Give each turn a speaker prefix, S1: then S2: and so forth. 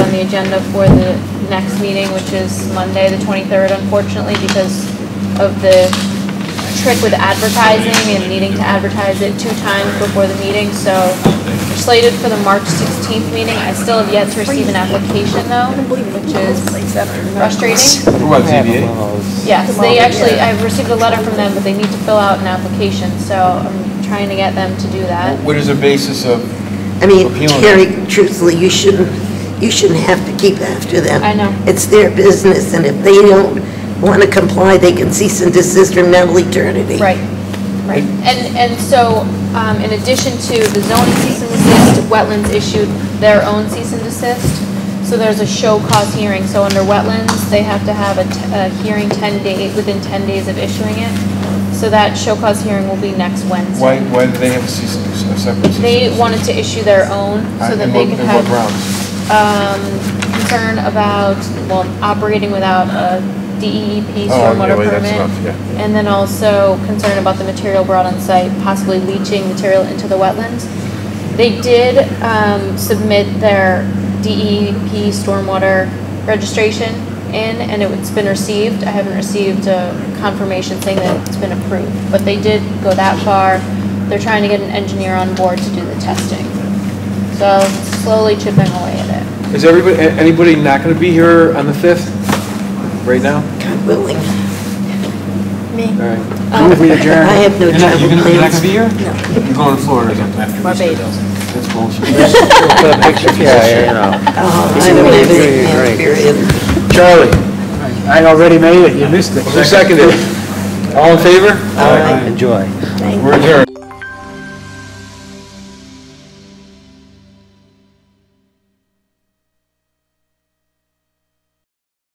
S1: the agenda for the next meeting, which is Monday, the 23rd, unfortunately, because of the trick with advertising and needing to advertise it two times before the meeting, so we're slated for the March 16th meeting. I still have yet to receive an application though, which is frustrating.
S2: For what, ZBA?
S1: Yes, they actually, I've received a letter from them, but they need to fill out an application, so I'm trying to get them to do that.
S2: What is the basis of,
S3: I mean,
S2: Appealing.
S3: Carrie, truthfully, you shouldn't, you shouldn't have to keep after them.
S1: I know.
S3: It's their business, and if they don't want to comply, they can cease and desist from mental eternity.
S1: Right, right. And, and so, um, in addition to the zoning cease and desist, wetlands issued their own cease and desist. So there's a show cause hearing, so under wetlands, they have to have a, t- a hearing ten day, within ten days of issuing it. So that show cause hearing will be next Wednesday.
S2: why, why do they have a cease and desist, a separate cease and
S1: They
S2: desist?
S1: wanted to issue their own, so
S2: And
S1: that they
S2: what-
S1: could
S2: and
S1: have.
S2: what grounds?
S1: um, concern about, well, operating without a DEEP
S2: Oh, yeah,
S1: stormwater
S2: well, that's
S1: permit.
S2: enough, yeah.
S1: And then also concern about the material brought on site, possibly leaching material into the wetlands. They did um, submit their DEP stormwater registration in, and it's been received. I haven't received a confirmation saying that it's been approved, but they did go that far. They're trying to get an engineer on board to do the testing. So slowly chipping away at it.
S4: Is everybody, a- anybody not going to be here on the 5th, right now?
S3: God willing.
S4: All right.
S1: Um,
S4: We adjourn.
S3: I have no
S2: You're not,
S3: travel
S2: you're gonna- you're not gonna
S3: plans.
S2: be here? No. You're going to Florida or something?
S1: Barbados.
S2: That's bullshit.
S3: Oh, I'm leaving, period.
S5: Charlie, I already made it, you missed it.
S4: Who seconded? All in favor?
S3: All right.
S5: Enjoy.
S2: We're adjourned.